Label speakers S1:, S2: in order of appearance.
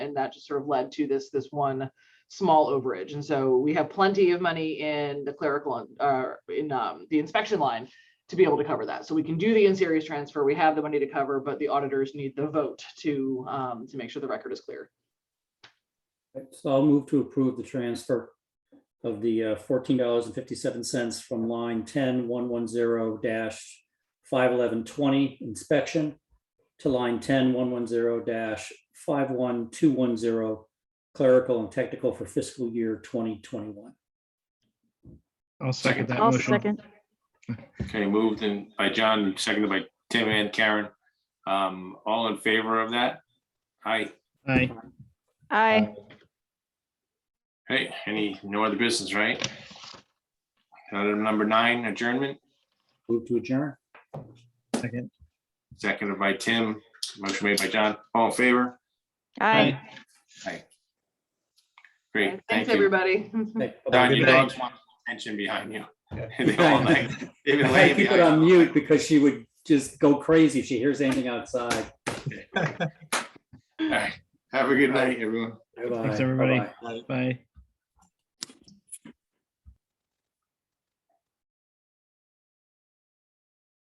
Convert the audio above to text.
S1: and that just sort of led to this, this one small overage. And so we have plenty of money in the clerical, uh, in, um, the inspection line to be able to cover that. So we can do the in-series transfer. We have the money to cover, but the auditors need the vote to, um, to make sure the record is clear.
S2: So I'll move to approve the transfer of the uh, fourteen dollars and fifty-seven cents from line ten one one zero dash five eleven twenty inspection to line ten one one zero dash five one two one zero clerical and technical for fiscal year twenty twenty-one.
S3: I'll second that
S4: I'll
S3: motion.
S4: second.
S5: Okay, moved in by John, seconded by Tim and Karen. Um, all in favor of that? Aye.
S3: Aye.
S4: Aye.
S5: Hey, any, no other business, right? Item number nine, adjournment,
S2: Move to adjourn.
S3: Second.
S5: seconded by Tim, motion made by John. All in favor?
S4: Aye.
S5: Great,
S1: Thanks,
S5: thank you.
S1: everybody.
S2: Okay,
S5: Don,
S2: bye-bye.
S5: your
S3: Good night.
S5: dogs want attention behind you. They all like-
S2: I
S5: they've been
S2: had
S5: laying
S2: to keep it
S5: behind
S2: on
S5: you.
S2: mute because she would just go crazy if she hears anything outside.
S5: All right, Have a good night, everyone.
S3: Thanks,
S2: Bye-bye,
S3: everybody.
S2: bye-bye.
S3: Bye.